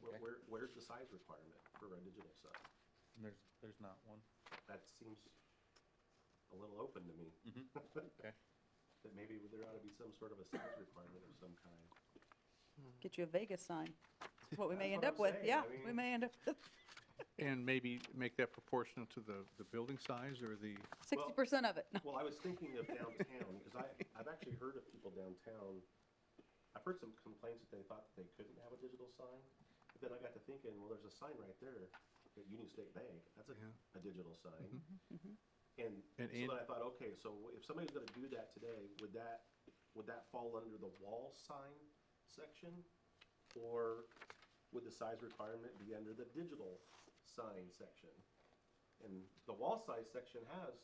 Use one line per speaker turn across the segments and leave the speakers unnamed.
Where- Where, where's the size requirement for a digital sub?
There's, there's not one.
That seems a little open to me.
Okay.
That maybe there ought to be some sort of a size requirement of some kind.
Get you a Vegas sign. That's what we may
That's
end
what I'm
up with.
saying.
Yeah,
I
we
mean-
may end up with
And maybe make that proportional to the, the building size or the,
sixty percent of it. No.
Well, I was thinking of downtown, because I, I've actually heard of people downtown, I've heard some complaints that they thought that they couldn't have a digital sign. But then I got to thinking, well, there's a sign right there at Union State Bank, that's a,
Yeah. Mm-hmm.
a digital sign. And so
And-
then
and-
I thought, okay, so if somebody's gonna do that today, would that, would that fall under the wall sign section? Or would the size requirement be under the digital sign section? And the wall size section has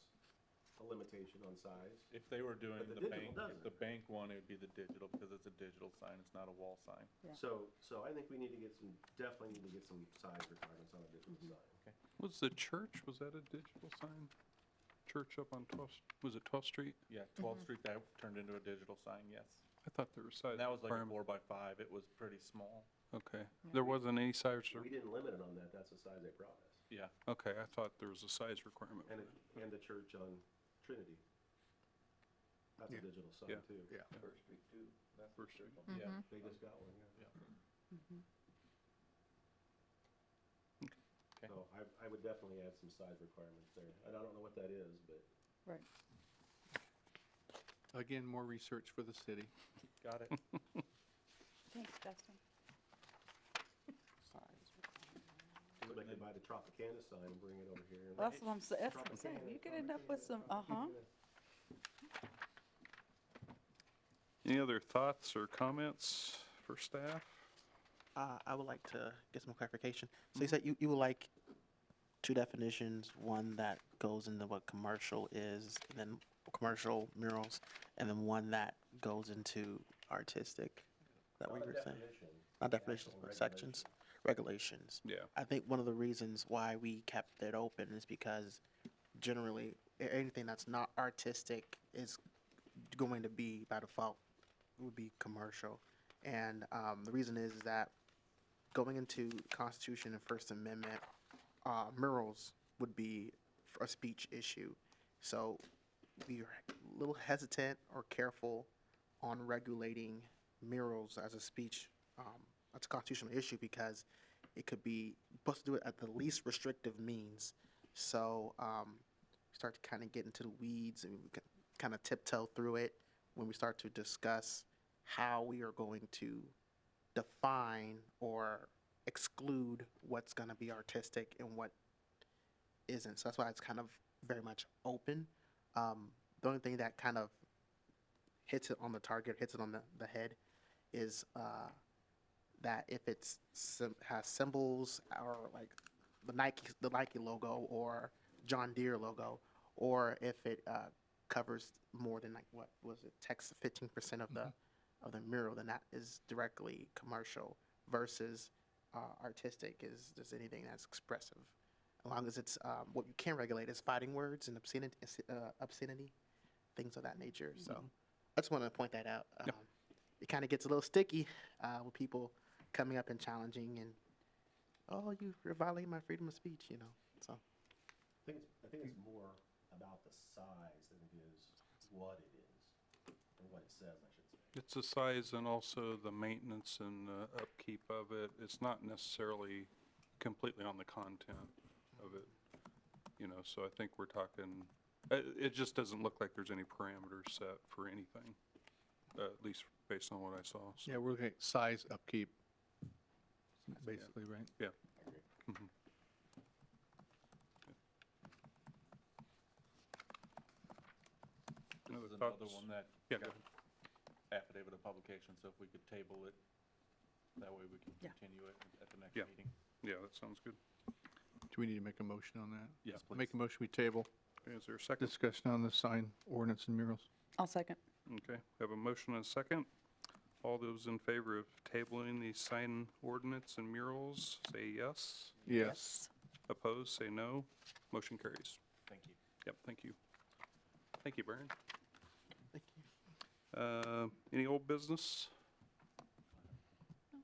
a limitation on size.
If they were doing
the
the
digital
bank,
doesn't.
the bank one, it would be the digital because it's a digital sign, it's not a wall sign.
Yeah.
So, so I think we need to get some, definitely need to get some size requirements on a digital
Mm-hmm.
sign.
was the church, was that a digital sign? Church up on 12th, was it 12th Street?
Yeah, 12th Street, that turned into a digital sign, yes.
I thought there was size.
And that was like a four
requirement.
by five, it was pretty small.
Okay, there wasn't any size,
We
re-
didn't limit it on that, that's the size they brought us.
Yeah,
okay, I thought there was a size requirement. for
And,
that.
it- and the church on Trinity. That's a
Yeah.
digital
Yeah.
sign too.
Yeah,
First Street too. That's
First Street. Mm-hmm.
Mm-hmm.
yeah,
They just got one, yeah.
yeah. Okay.
So I, I would definitely add some size requirements there. And I don't know what that is, but
Right.
again, more research for the city.
Got it.
Thanks, Justin.
somebody could buy the Tropicana sign and bring it over here. and-
Well, that's what I'm, sa- that's what I'm saying.
Tropicana,
You could end up with
Tropicana,
some, uh-huh.
Tropicana.
Any other thoughts or comments for staff?
Uh, I would like to get some clarification. So you said you, you would like two definitions, one that goes into what commercial is, and then commercial murals, and then one that goes into artistic. Is that what
Not
you
a
were saying?
definition,
Not definitions,
actual
but sections,
regulation.
regulations.
Yeah.
I think one of the reasons why we kept it open is because generally, a- anything that's not artistic is going to be by default would be commercial. And um, the reason is, is that going into Constitution and First Amendment, uh, murals would be f- a speech issue. So we are a little hesitant or careful on regulating murals as a speech, um, as a constitutional issue because it could be, supposed to do it at the least restrictive means. So, um, we start to kind of get into the weeds and we kind of tiptoe through it when we start to discuss how we are going to define or exclude what's going to be artistic and what isn't. So that's why it's kind of very much open. Um, the only thing that kind of hits it on the target, hits it on the, the head, is uh, that if it's sim- has symbols or like the Nike the Nike logo or John Deere logo, or if it uh, covers more than like what was it text fifteen percent of the of the mural, then that is directly commercial versus uh, artistic is just anything that's expressive. As long as it's um, what you can regulate is fighting words and obscenity, uh, obscenity, things of that nature. So I just want to point that out. Um, It kind of gets a little sticky uh, with people coming up and challenging and, oh, you- you're violating my freedom of speech, you know. So
I think, it's I think it's more about the size than it is what it is, or what it says, I should say.
It's the size and also the maintenance and uh, upkeep of it. It's not necessarily completely on the content of it, you know, so I think we're talking, it, it just doesn't look like there's any parameters set for anything, uh, at least based on what I saw. so-
Yeah, we're looking at size upkeep, basically, right?
Yeah.
This
Other
is another
thoughts?
one that
Yeah,
got
go ahead.
affidavit of publication, so if we could table it, that way we can
Yeah.
continue it at the next
Yeah.
meeting.
Yeah, that sounds good.
Do we need to make a motion on that?
Yes,
Make
please.
a motion, we table
Okay, Is there a second?
discussion on the sign ordinance and murals.
I'll second.
Okay, have a motion and a second. All those in favor of tabling the sign ordinance and murals, say yes. Opposed, say no. Motion carries.
Thank you.
Yep, thank you. Thank you, Brian.
thank you.
Uh, Any old business?